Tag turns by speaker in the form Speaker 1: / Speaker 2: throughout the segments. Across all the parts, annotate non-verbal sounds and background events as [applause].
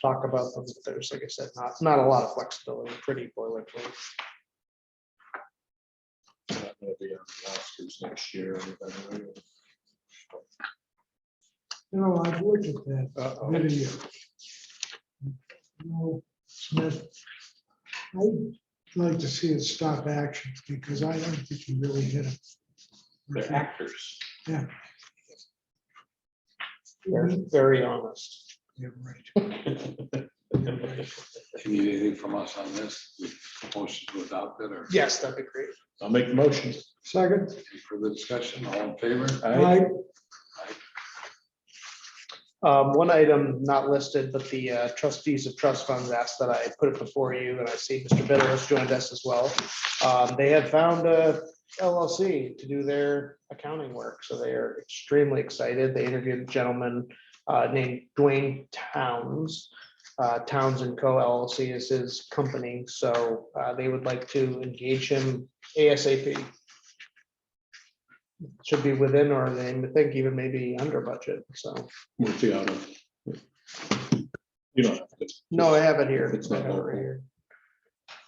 Speaker 1: talk about them. but There's, like I said, not, not a lot of flexibility, pretty boilerplate.
Speaker 2: not gonna be on the rosters next year. or anything.
Speaker 3: No, I've looked at that
Speaker 2: Uh-oh.
Speaker 3: video. No, Smith, I'd like to see it stop action because I don't think he really hit him.
Speaker 2: They're actors.
Speaker 1: They're very honest.
Speaker 3: Yeah, right.
Speaker 4: Do you need anything from us on this? We Motion to adopt it or
Speaker 1: Yes, that'd be great.
Speaker 2: I'll make the motion.
Speaker 3: Second,
Speaker 4: any further discussion? All in favor?
Speaker 2: I
Speaker 3: I,
Speaker 1: Um, one item not listed, but the uh, trustees of trust funds asked that I put it before you, and I see Mr. Bitter has joined us as well. Um, they have found a LLC to do their accounting work, so they are extremely excited. They interviewed a gentleman uh, named Dwayne Towns. Uh, Towns and Co LLC is his company, so uh, they would like to engage him ASAP. Should be within or they think even maybe under budget, so.
Speaker 2: Murphy out of. You don't have to.
Speaker 1: No, I have it here.
Speaker 2: It's not
Speaker 1: I have it right
Speaker 2: local.
Speaker 1: here.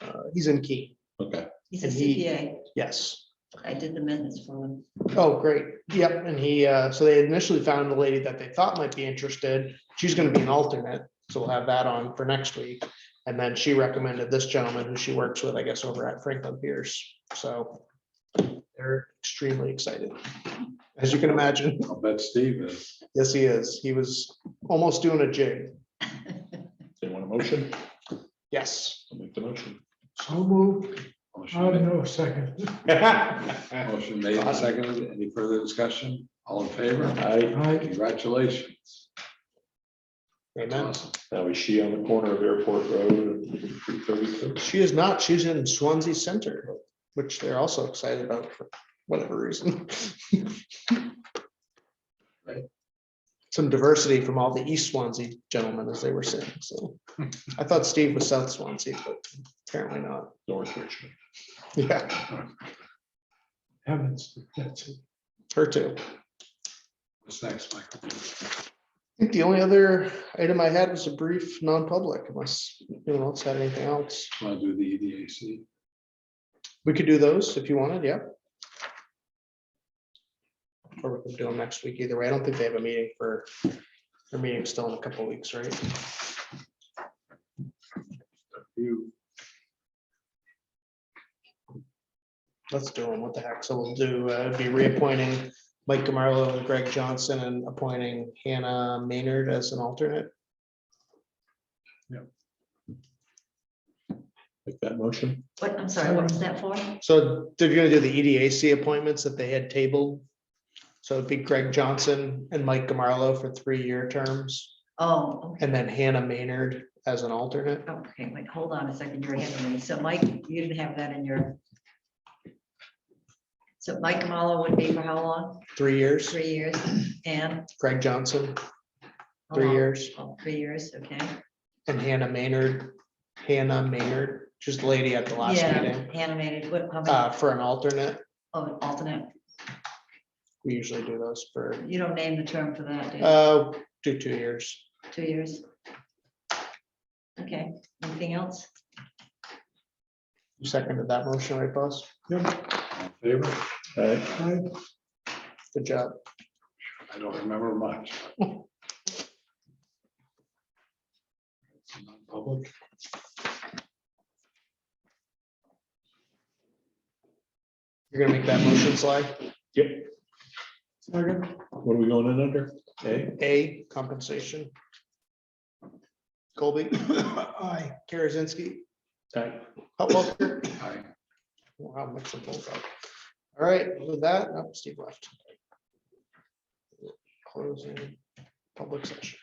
Speaker 1: Uh, He's in Key,
Speaker 2: Okay,
Speaker 5: He's a
Speaker 1: And he-
Speaker 5: CPA.
Speaker 1: yes.
Speaker 5: I did the minutes for him.
Speaker 1: Oh, great. Yep, and he, uh, so they initially found a lady that they thought might be interested. She's gonna be an alternate, so we'll have that on for next week. And then she recommended this gentleman who she works with, I guess, over at Franklin Pierce, so they're extremely excited. As you can imagine, [laughs]
Speaker 4: I'll bet Steve is.
Speaker 1: yes, he is. He was almost doing a jig.
Speaker 2: they want a motion?
Speaker 1: Yes,
Speaker 2: I'll make the [laughs] motion.
Speaker 3: so moved, I
Speaker 4: Motion
Speaker 3: don't
Speaker 4: made-
Speaker 3: know, second,
Speaker 4: motion made and seconded. Any further discussion? All in favor?
Speaker 2: I,
Speaker 3: I,
Speaker 4: Congratulations.
Speaker 1: amen.
Speaker 4: Awesome.
Speaker 2: now is she on the corner of Airport Road and three thirty-six?
Speaker 1: She is not. She's in Swansea Center, which they're also excited about for whatever reason.
Speaker 4: Right.
Speaker 1: Some diversity from all the East Swansea gentlemen, as they were saying, so. I thought Steve was South Swansea, but apparently not.
Speaker 2: North Richmond.
Speaker 1: Yeah,
Speaker 3: heavens, that's it.
Speaker 1: her too.
Speaker 4: What's next, Michael?
Speaker 1: I think the only other item I had was a brief non-public unless anyone else had anything else.
Speaker 4: Want to do the E EDAC?
Speaker 1: We could do those if you wanted, yeah. Or we can do them next week either way. I don't think they have a meeting for, their meeting's still in a couple weeks, right?
Speaker 4: You,
Speaker 1: Let's do them. What the heck? So we'll do, uh, be reappointing Mike Gamarlo and Greg Johnson and appointing Hannah Maynard as an alternate.
Speaker 2: Make that motion.
Speaker 5: What, I'm sorry, what was that for?
Speaker 1: So they're gonna do the E EDAC appointments that they had tabled. So it'd be Greg Johnson and Mike Gamarlo for three-year terms
Speaker 5: Oh, okay,
Speaker 1: and then Hannah Maynard as an alternate.
Speaker 5: okay, wait, hold on a second, you're ahead of me. So Mike, you didn't have that in your. So Mike Kamalo would be for how long?
Speaker 1: Three years,
Speaker 5: Three years and?
Speaker 1: Greg Johnson,
Speaker 5: how
Speaker 1: three
Speaker 5: long?
Speaker 1: years.
Speaker 5: Oh, Three years, okay.
Speaker 1: And Hannah Maynard, Hannah Maynard, just the lady at the last
Speaker 5: Yeah,
Speaker 1: meeting,
Speaker 5: animated, what, how
Speaker 1: uh,
Speaker 5: many,
Speaker 1: for an alternate.
Speaker 5: oh, alternate,
Speaker 1: We usually do those for,
Speaker 5: you don't name the term for that, do you?
Speaker 1: uh, do two years.
Speaker 5: two years? Okay, anything else?
Speaker 1: You seconded that motion, right, boss?
Speaker 4: all in favor?
Speaker 2: I,
Speaker 3: I,
Speaker 1: Good job.
Speaker 4: I don't remember much. Public.
Speaker 1: You're gonna make that motion slide.
Speaker 3: second.
Speaker 2: what are we going in under? A,
Speaker 1: A, compensation. Colby. Aye. Karazinski.
Speaker 2: Aye.
Speaker 1: Hutwalker.
Speaker 4: Aye.
Speaker 1: Wow, mix them both up. All right, with that, oh, Steve left. Closing public session.